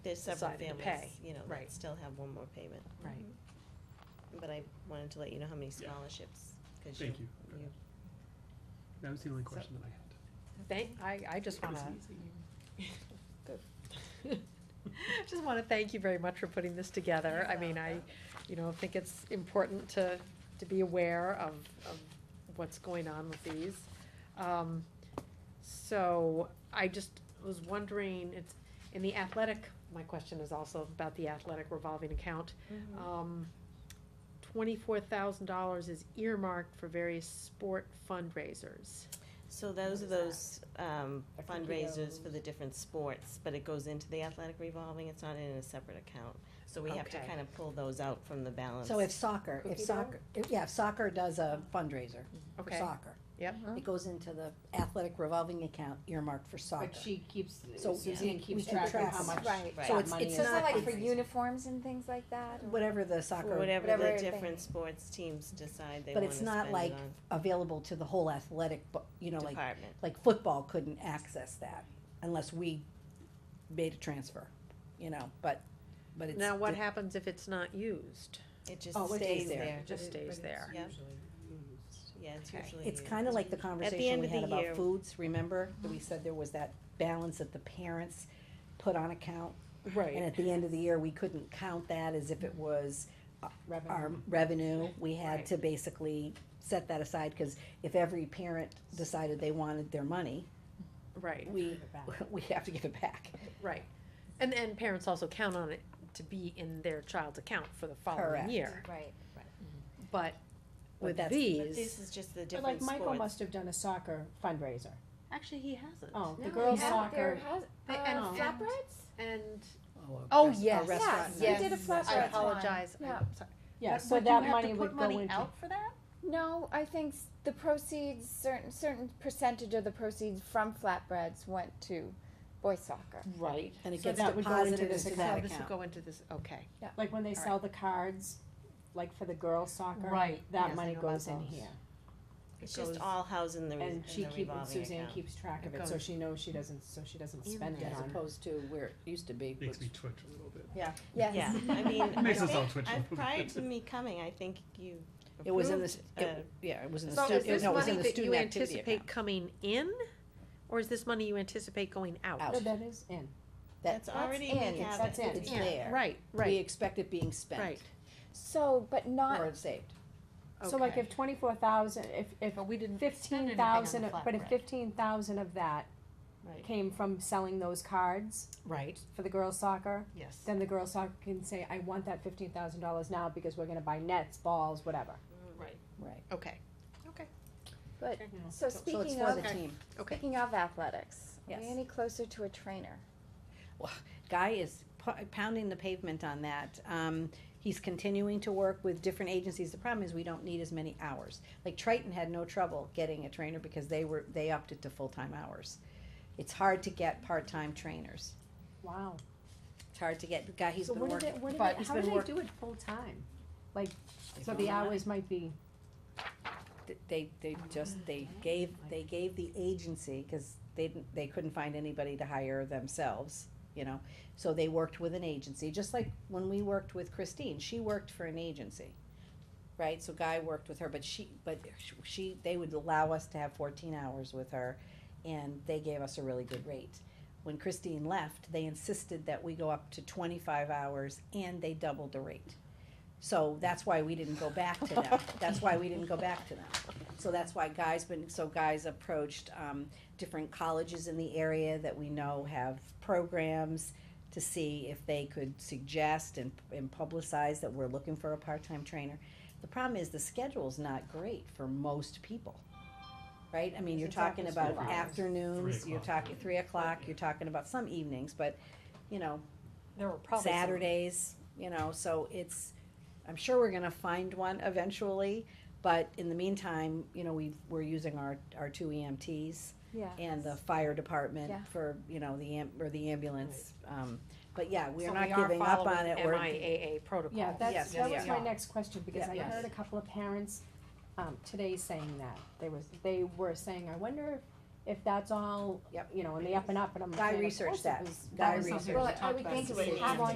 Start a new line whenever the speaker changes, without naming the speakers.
There's several
decided to
families,
pay,
you know,
right.
that still have one more payment.
Right.
But I wanted to let you know how many
Yeah.
scholarships, because you.
Thank you. That was the only question that I had.
Thank, I, I just
It was
wanna,
easy.
just wanna thank you very much for putting this together. I mean, I, you know, think it's important to, to be aware of, of what's going on with these. Um, so I just was wondering, it's, in the athletic, my question is also about the athletic revolving account.
Mm-hmm.
Mhm.
Um, twenty-four thousand dollars is earmarked for various sport fundraisers.
So those are
What
those um,
Or
fundraisers for the different sports, but it goes into the athletic revolving, it's not in a separate account. So we have to
Okay.
kind of pull those out from the balance.
So if soccer, if
Cookie dough?
soccer, if- yeah, if soccer does a fundraiser for
Okay,
soccer.
Yep.
Uh-huh.
It goes into the athletic revolving account earmarked for soccer.
But she keeps,
So
Suzanne keeps
we
track of how
track-
much
right.
Right.
So
that
it's-
money
it's
is.
not
So is that like for
fundraising.
uniforms and things like that? or-
Whatever the
For
soccer
whatever the
whatever they-
different sports teams decide they
But
want to
it's
spend it
not
on
like available to the whole athletic, bu- you know, like,
department.
like football couldn't access that unless we made a transfer, you know, but, but it's.
Now, what
di-
happens if it's not used?
It
Oh,
just
it stays
stays
there.
there.
It just stays there.
Yep. Yeah, it's
Okay.
usually.
It's
used.
kinda like the conversation
end
we
of the
had about
year-
foods, remember? That
Mm-hmm.
We said there was that balance that the parents put on account And at the end of the year, we couldn't count that as if it was our revenue. We had
Right.
to basically set that aside, cause if every parent decided they wanted their money,
Right,
we, we have to give it back.
right. And, and parents also count on it to be in their child's account for the following
Correct.
year.
Right.
But
But
with
that's-
But this
these,
is just the
But
different
like
sports.
Michael must have done a soccer fundraiser.
actually, he hasn't.
Oh, the
No,
girls
yeah, there
soccer,
has-
They- and
um,
flat
and-
And,
a
oh,
rest- a
yes,
restaurant
Yes,
yes.
you did a flash
I
restaurant.
apologize. I'm
Yeah.
sorry.
yeah,
But
so
would you
that
have to
money
put
would go into,
Out for that?
No, I think s- the proceeds, certain, certain percentage of the proceeds from flatbreads went to boys soccer.
right,
And it
So
gets
that would go into
deposited
this
into
Oh,
that
this will
account.
go into this, okay.
like when they
All
sell the cards, like for the girls soccer.
Right. Yes, I
That money
know about
goes in
those.
here,
It's
It
just
goes-
all housed in the, re- in
and she
the
keep, and
revolving
Suzanne
account.
kees track of
It
it, so
goes-
she knows she doesn't, so she doesn't spend it
As
on.
opposed to where it used to be.
Makes
was-
me twitch a little bit.
Yes.
Yeah, I mean, I
Makes us all
think,
twitch a
I-
little
prior
bit.
to me coming, I think you
It was in the,
approved, uh,
s- it- yeah, it was in the,
So
stu-
is
it-
this
no, it was
money
in the
that you
student activity
anticipate
account.
coming in? Or is this money you anticipate going
Out.
out?
No, that is in,
That-
that's already, we
in,
have
that's
it.
in.
It's
Yeah.
there.
Right,
We
right,
expect it being spent
right.
So, but not,
or saved.
so like
Okay.
if twenty-four thousand, if, if
But we didn't spend
fifteen
anything on the
thousand, but if
flatbread.
fifteen thousand of that
Right.
came from selling those cards
Right,
for the girls soccer,
yes.
then the girls soccer can say, I want that fifteen thousand dollars now because we're gonna buy nets, balls, whatever.
Right.
Okay,
but,
Yeah.
So
so
it's
speaking
for
of,
the team.
okay.
speaking of athletics, are we
Yes.
any closer to a trainer?
Guy is pu- pounding the pavement on that. Um, he's continuing to work with different agencies. The problem is we don't need as many hours. Like Triton had no trouble getting a trainer because they were, they opted to full-time hours. It's hard to get part-time trainers.
Wow.
It's hard to get, the guy, he's
So
been
what did
working.
they, what did
but
they,
he's
how
been
did they
work-
do it full-time? Like, so
don't
the
know.
hours might be,
They, they just, they gave, they gave the agency, cause they didn't, they couldn't find anybody to hire themselves, you know? So they worked with an agency, just like when we worked with Christine, she worked for an agency. right? So Guy worked with her, but she, but she, they would allow us to have fourteen hours with her, and they gave us a really good rate. When Christine left, they insisted that we go up to twenty-five hours, and they doubled the rate. So that's why we didn't go back to them, that's why we didn't go back to them. So that's why Guy's been, so Guy's approached, um, different colleges in the area that we know have programs to see if they could suggest and, and publicize that we're looking for a part-time trainer. The problem is the schedule's not great for most people, right? I mean, you're
It's after
talking about
school hours.
afternoons,
Three
you're
o'clock.
talking, three o'clock, you're talking about some evenings, but, you know,
There were probably some-
Saturdays, you know, so it's, I'm sure we're gonna find one eventually, but in the meantime, you know, we, we're using our, our two EMTs
Yeah.
and the fire department
Yeah.
for, you know, the am, or the ambulance, um, but yeah, we're
So
not
we are
giving up on
following
it, we're.
MIAA protocol.
yeah,
Yes,
that's, that
yeah.
was my next question, because
Yeah.
I
Yes.
heard a couple of parents, um, today saying that. They was, they were saying, I wonder if, if that's all,
Yep.
you know, and the up and up, and I'm.
Guy
saying, of
researched
course it
that.
was-
Guy
was something
researched
we
Well,
talked about at the beginning.
on